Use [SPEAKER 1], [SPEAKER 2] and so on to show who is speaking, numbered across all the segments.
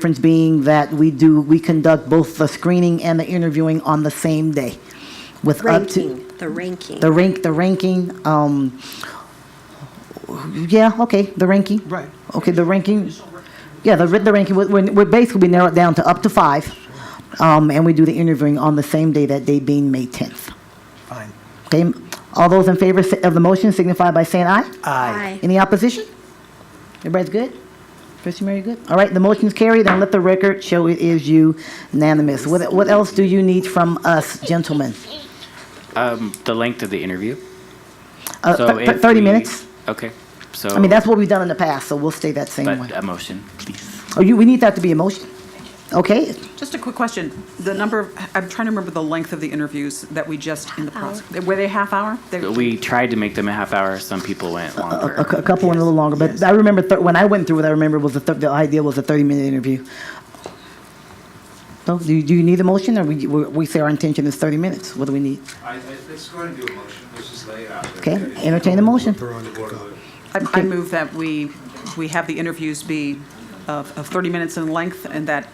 [SPEAKER 1] difference being that we do, we conduct both the screening and the interviewing on the same day with up to,
[SPEAKER 2] Ranking, the ranking.
[SPEAKER 1] the rank, the ranking, um, yeah, okay, the ranking.
[SPEAKER 3] Right.
[SPEAKER 1] Okay, the ranking, yeah, the, the ranking, we- we're, we're basically narrow it down to up to five. Um, and we do the interviewing on the same day, that day being May 10th.
[SPEAKER 3] Fine.
[SPEAKER 1] Okay, all those in favor of the motion signify by saying aye.
[SPEAKER 3] Aye.
[SPEAKER 1] Any opposition? Everybody's good? Trustee Mary, good? All right, the motion's carried, and let the record show it is unanimous. What, what else do you need from us, gentlemen?
[SPEAKER 4] Um, the length of the interview.
[SPEAKER 1] Uh,
[SPEAKER 4] So
[SPEAKER 1] thir- thir-
[SPEAKER 4] if
[SPEAKER 1] 30
[SPEAKER 4] we-
[SPEAKER 1] minutes?
[SPEAKER 4] Okay, so.
[SPEAKER 1] I mean, that's what we've done in the past, so we'll stay that same
[SPEAKER 4] But uh,
[SPEAKER 1] way.
[SPEAKER 4] a motion, please.
[SPEAKER 1] Oh, you, we need that to be a motion? Okay,
[SPEAKER 5] Just a quick question. The number, of I'm trying to remember the length of the interviews that we just, in the process, were they half hour? They-
[SPEAKER 4] We tried to make them a half hour, some people went longer.
[SPEAKER 1] a, cou- a couple went a little longer, but I remember, thir- when I went through it, I remember was the, thir- the idea was a 30-minute interview. So, do, you- do you need a motion, or we, we we say our intention is 30 minutes? What do we need?
[SPEAKER 6] I, I, let's go ahead and do a motion, let's just lay it out.
[SPEAKER 1] Okay, entertain the motion.
[SPEAKER 5] I I move that we, we have the interviews be of of 30 minutes in length and that,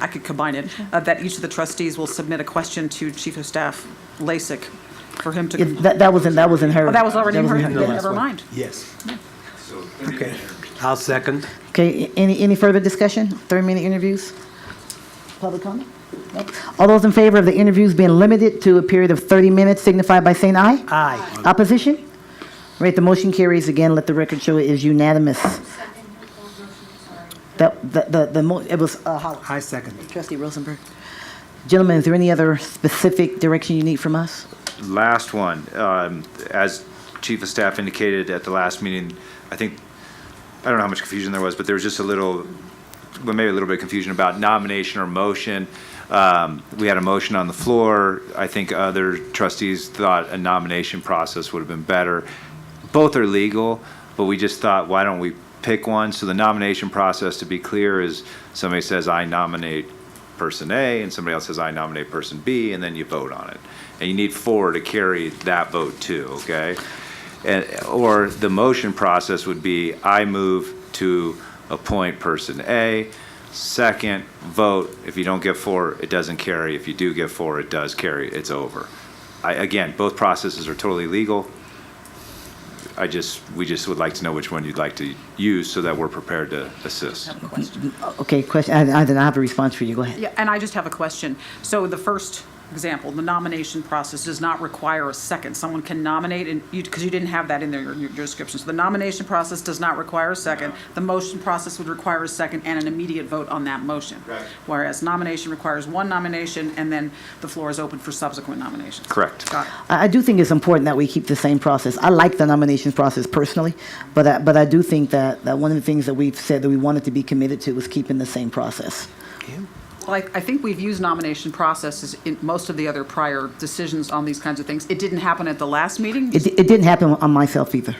[SPEAKER 5] I could combine it, uh, that each of the trustees will submit a question to Chief of Staff Lasik for him to,
[SPEAKER 1] Yeah, That, that was in, that was in her.
[SPEAKER 5] oh, that was already in her,
[SPEAKER 1] was
[SPEAKER 5] then
[SPEAKER 1] yeah.
[SPEAKER 5] never mind.
[SPEAKER 3] Yes.
[SPEAKER 6] So, thirty
[SPEAKER 3] Okay.
[SPEAKER 6] minutes.
[SPEAKER 3] I'll second.
[SPEAKER 1] Okay, any, any further discussion? 30-minute interviews? Public comment? Nope. All those in favor of the interviews being limited to a period of 30 minutes signify by saying aye.
[SPEAKER 3] Aye.
[SPEAKER 1] Opposition? All Right, the motion carries again. Let the record show it is unanimous. That, the, the, the mo- it was, uh, Howard.
[SPEAKER 3] I second.
[SPEAKER 1] Trustee Rosenberg. Gentlemen, is there any other specific direction you need from us?
[SPEAKER 6] Last one, um, as Chief of Staff indicated at the last meeting, I think, I don't know how much confusion there was, but there was just a little, well, maybe a little bit of confusion about nomination or motion. Um, We had a motion on the floor. I think other trustees thought a nomination process would have been better. Both are legal, but we just thought, why don't we pick one? So the nomination process, to be clear, is somebody says, I nominate person A, and somebody else says, I nominate person B, and then you vote on it. And you need four to carry that vote too, okay? And, or the motion process would be, I move to appoint person A, second, vote. If you don't get four, it doesn't carry. If you do get four, it does carry. It's over. I, again, both processes are totally legal. I just, we just would like to know which one you'd like to use so that we're prepared to assist.
[SPEAKER 1] Okay, question, I, I then I have a response for you. Go ahead.
[SPEAKER 5] Yeah, and I just have a question. So the first example, the nomination process does not require a second. Someone can nominate, and you, because you didn't have that in there, your your description. So the nomination process does not require a second. The motion process would require a second and an immediate vote on that motion.
[SPEAKER 6] Right.
[SPEAKER 5] Whereas nomination requires one nomination, and then the floor is open for subsequent nominations.
[SPEAKER 6] Correct.
[SPEAKER 5] Got it.
[SPEAKER 1] I, I do think it's important that we keep the same process. I like the nominations process personally, but I, but I do think that, that one of the things that we've said that we wanted to be committed to was keeping the same process.
[SPEAKER 5] Well, I, I think we've used nomination processes in most of the other prior decisions on these kinds of things. It didn't happen at the last meeting.
[SPEAKER 1] It, di- it didn't happen on myself either.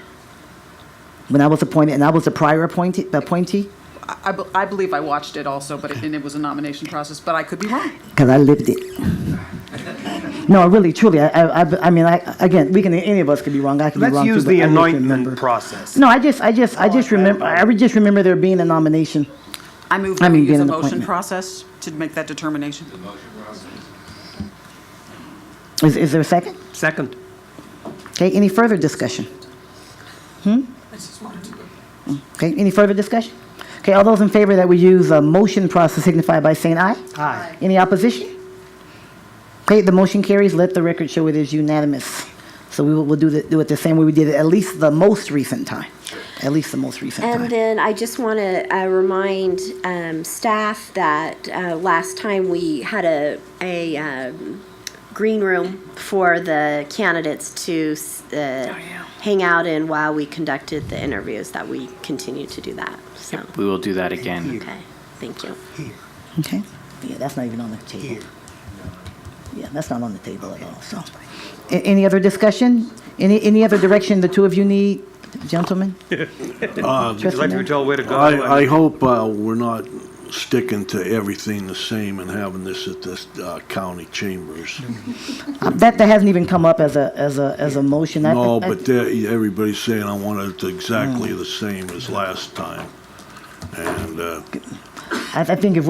[SPEAKER 1] When I was appointed, and I was a prior appointee, appointee,
[SPEAKER 5] I, be- I believe I watched it also, but it, and it was a nomination process, but I could be wrong.
[SPEAKER 1] because I lived it. No, really, truly, I, I, I- I mean, I, again, we can, any of us could be wrong, I could be
[SPEAKER 3] Let's
[SPEAKER 1] wrong too.
[SPEAKER 3] use
[SPEAKER 1] but
[SPEAKER 3] the
[SPEAKER 1] I just
[SPEAKER 3] anointment Oh,
[SPEAKER 1] remember-
[SPEAKER 3] process.
[SPEAKER 1] No, I just, I just, I just remember, I would just remember there being a nomination.
[SPEAKER 5] I move
[SPEAKER 1] I
[SPEAKER 5] that
[SPEAKER 1] mean,
[SPEAKER 5] we
[SPEAKER 1] get
[SPEAKER 5] use a
[SPEAKER 1] an
[SPEAKER 5] motion
[SPEAKER 1] appointment.
[SPEAKER 5] process to make that determination.
[SPEAKER 1] Is, is there a second?
[SPEAKER 3] Second.
[SPEAKER 1] Okay, any further discussion? Hmm? Okay, any further discussion? Okay, all those in favor that we use a motion process signify by saying aye.
[SPEAKER 3] Aye.
[SPEAKER 1] Any opposition? Okay, the motion carries. Let the record show it is unanimous. So we will, we'll do the, do it the same way we did it, at least the most recent time. At least the most recent
[SPEAKER 2] And
[SPEAKER 1] time.
[SPEAKER 2] then I just want to uh, remind um, staff that uh, last time we had a, a um, green room for the candidates to s-
[SPEAKER 1] Oh,
[SPEAKER 2] uh, hang out in while we conducted the interviews, that we continue to do that, so,
[SPEAKER 4] We will do that again.
[SPEAKER 2] okay, thank you.
[SPEAKER 1] Okay? Yeah, that's not even on the table. Yeah, that's not on the table at all, so. A- Any other discussion? Any, any other direction the two of you need, gentlemen?
[SPEAKER 3] Would Uh, you like to be told where to go?
[SPEAKER 7] I, I hope uh, we're not sticking to everything the same and having this at this uh, county chambers.
[SPEAKER 1] That, that hasn't even come up as a, as a, as a motion. I-
[SPEAKER 7] No,
[SPEAKER 1] I-
[SPEAKER 7] but they're- everybody's saying I want it exactly the same as last time.
[SPEAKER 8] And uh,
[SPEAKER 7] I I think if